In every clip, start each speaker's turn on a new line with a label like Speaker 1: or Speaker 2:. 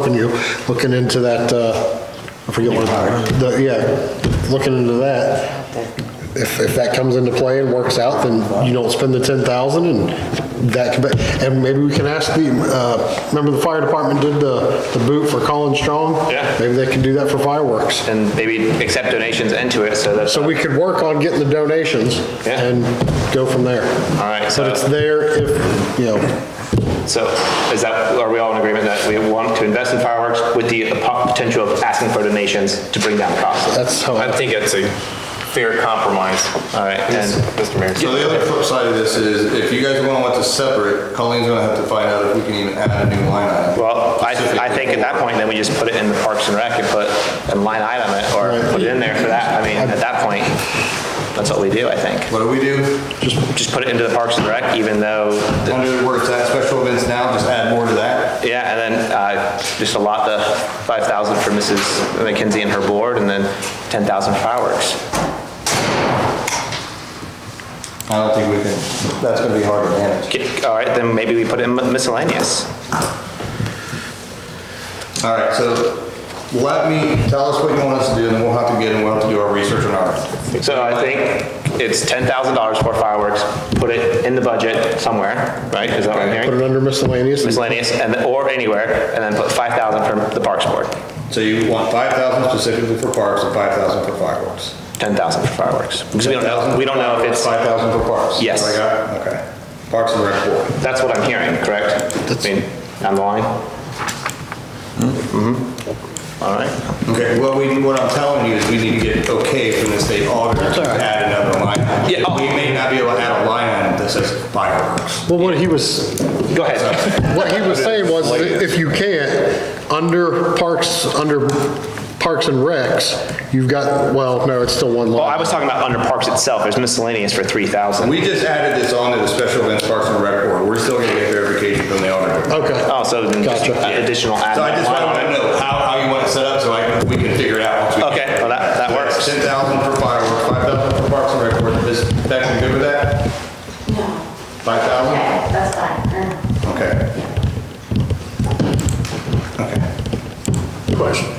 Speaker 1: helping you, looking into that, uh, I forget what, the, yeah, looking into that. If, if that comes into play and works out, then you don't spend the 10,000 and that, could be- and maybe we can ask the, uh, remember the fire department did the, the boot for Colin Strong?
Speaker 2: Yeah.
Speaker 1: Maybe they can do that for fireworks.
Speaker 2: and maybe accept donations into it, so that's.
Speaker 1: So we could work on getting the donations
Speaker 2: Yeah.
Speaker 1: and go from there.
Speaker 2: All right, so
Speaker 1: But it's there if, you know,
Speaker 2: So is that, are we all in agreement that we want to invest in fireworks with the the po- potential of asking for donations to bring down costs?
Speaker 1: that's how.
Speaker 3: I think it's a fair compromise.
Speaker 2: All right,
Speaker 3: Yes,
Speaker 2: and-
Speaker 3: Mr. Mayor.
Speaker 4: So the other flip side of this is, if you guys want to want to separate, Colleen's gonna have to find out if we can even add a new line item.
Speaker 2: Well, I, I think at that point, then we just put it in the Parks and Rec and put a line item it, or put it in there for that. I mean, at that point, that's what we do, I think.
Speaker 4: What do we do?
Speaker 2: Just, just put it into the Parks and Rec, even though, the-
Speaker 4: Under where it's at, special events now, just add more to that.
Speaker 2: yeah, and then, uh, just allot the five thousand for Mrs. McKenzie and her board, and then ten thousand fireworks.
Speaker 4: I don't think we can, that's gonna be hard to manage.
Speaker 2: Okay, All right, then maybe we put it in miscellaneous.
Speaker 4: All right, so let me, tell us what you want us to do, and then we'll have to get, and we'll have to do our research on our.
Speaker 2: So I think it's ten thousand dollars for fireworks, put it in the budget somewhere, right? Is that what I'm
Speaker 1: Put
Speaker 2: hearing?
Speaker 1: it under miscellaneous. and-
Speaker 2: Miscellaneous, and, or anywhere, and then put five thousand for the Parks Board,
Speaker 4: So you want 5,000 specifically for parks and 5,000 for fireworks?
Speaker 2: ten thousand for fireworks. Because we don't know, we don't know if it's,
Speaker 4: 5,000 for parks?
Speaker 2: Yes.
Speaker 4: Is that what I got? Okay. Parks and Rec Board.
Speaker 2: that's what I'm hearing, correct? I mean, on the line? Mm-hmm. All right.
Speaker 4: Okay, what we, what I'm telling you is we need to get okay from the state auditor to add another line. item.
Speaker 2: Yeah, oh.
Speaker 4: We may not be able to add a line item that says fireworks.
Speaker 1: Well, what he was,
Speaker 2: Go ahead.
Speaker 1: what he was saying was, if you can't, under parks, under parks and recs, you've got, well, no, it's still one
Speaker 2: Well, I
Speaker 1: line.
Speaker 2: was talking about under Parks itself, there's miscellaneous for three thousand.
Speaker 4: We just added this on to the special events Parks and Rec Board. We're still gonna get verification from the auditor.
Speaker 1: Okay,
Speaker 2: Oh, so then just
Speaker 1: Gotcha.
Speaker 2: additional add.
Speaker 4: So I just
Speaker 2: line
Speaker 4: wanna
Speaker 2: item.
Speaker 4: know how, how you want it set up so I, can- we can figure it out once we.
Speaker 2: Okay, well, that- that works.
Speaker 4: Ten thousand for fireworks, five thousand for Parks and Rec Board. Is Becky good with that?
Speaker 5: No,
Speaker 4: Five thousand?
Speaker 5: okay, that's fine.
Speaker 4: Okay. Okay.
Speaker 6: Question.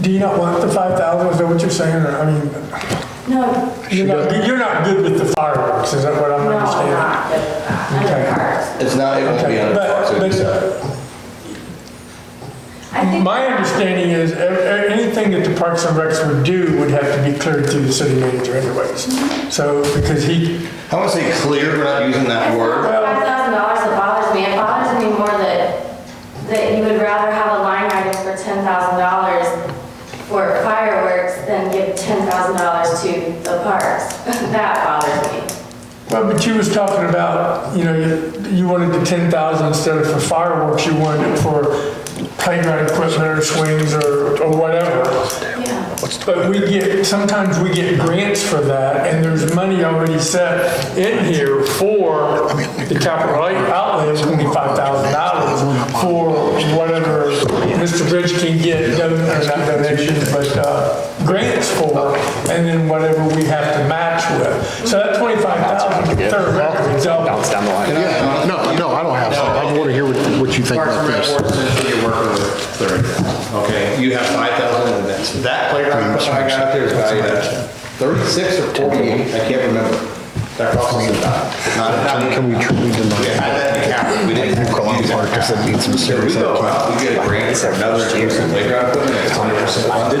Speaker 6: Do you not want the 5,000, is that what you're saying, or, I mean,
Speaker 5: No,
Speaker 6: you're not, you're not good with the fireworks, is that what I'm
Speaker 5: no, I'm
Speaker 6: understanding?
Speaker 5: not, under cards.
Speaker 4: It's not, it won't be
Speaker 6: Okay,
Speaker 4: under parks.
Speaker 6: but-
Speaker 4: it'll be
Speaker 6: but-
Speaker 4: separate.
Speaker 5: I think-
Speaker 6: My understanding is, e- e- anything that the Parks and Recs would do would have to be cleared through the city manager anyways. So, because he,
Speaker 4: I want to say clear, we're not using that
Speaker 5: It's not
Speaker 4: word.
Speaker 5: the five thousand dollars that bothers me, it bothers me more that, that you would rather have a line item for ten thousand dollars for fireworks than give ten thousand dollars to the parks. That bothers me.
Speaker 6: well, but you was talking about, you know, you- you wanted the 10,000 instead of for fireworks, you wanted it for playground equipment or swings or, or whatever.
Speaker 5: Yeah.
Speaker 6: But we get, sometimes we get grants for that, and there's money already set in here for the capital outlay of twenty-five thousand dollars for whatever Mr. Bridge can get, don- or not donations, but uh, grants for, and then whatever we have to match with. So that twenty-five thousand, third record,
Speaker 2: Bounce down the line.
Speaker 1: yeah, no, no, I don't have, some. I want to hear what what you think
Speaker 4: Parks
Speaker 1: about
Speaker 4: and Rec
Speaker 1: this.
Speaker 4: Board essentially you're working with thirty thousand, okay? You have five thousand events. That playground equipment I got out there is valued at thirty-six or forty-eight, I can't remember. That costs us a dime. Not a dime.
Speaker 1: Can we truly deny
Speaker 4: We had
Speaker 1: that?
Speaker 4: that in cap. We didn't have to
Speaker 1: Call
Speaker 4: use
Speaker 1: it park,
Speaker 4: that
Speaker 1: 'cause it needs some
Speaker 4: So we
Speaker 1: serious
Speaker 4: go out, we get a grant for another piece of playground equipment that's hundred percent funded.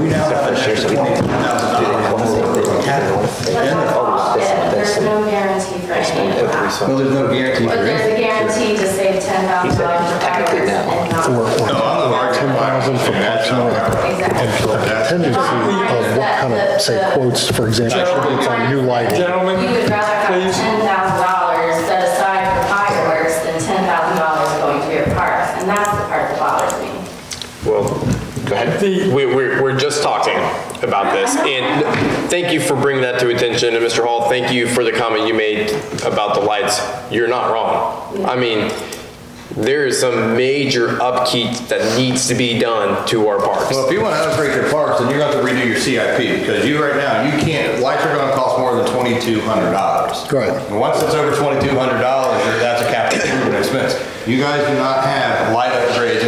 Speaker 4: We now have an extra $20,000.
Speaker 5: But that's
Speaker 4: Oh,
Speaker 5: all, yeah, there's no guarantee for any of that.
Speaker 4: Well, there's no guarantee for
Speaker 5: But
Speaker 4: it.
Speaker 5: there's a guarantee to save ten thousand dollars for fireworks and not.
Speaker 4: No, I'm the market.
Speaker 1: for Parks and Rec.
Speaker 5: Exactly.
Speaker 1: Tendency of what kind of, say, quotes, for example, it's on new lighting.
Speaker 6: Gentlemen,
Speaker 5: You would rather have
Speaker 6: please.
Speaker 5: ten thousand dollars set aside for fireworks than ten thousand dollars going to your parks, and that's the part that bothers me.
Speaker 3: Well, go ahead. We, we're, we're just talking about this, and thank you for bringing that to attention, and Mr. Hall, thank you for the comment you made about the lights. You're not wrong. I mean, there is some major upkeep that needs to be done to our parks.
Speaker 4: Well, if you want to upgrade your parks, then you're going to have to redo your CIP, because you, right now, you can't, lights are going to cost more than twenty-two hundred dollars.
Speaker 1: Right.
Speaker 4: And once it's over twenty-two hundred dollars, that's a capital improvement expense. You guys do not have light upgrades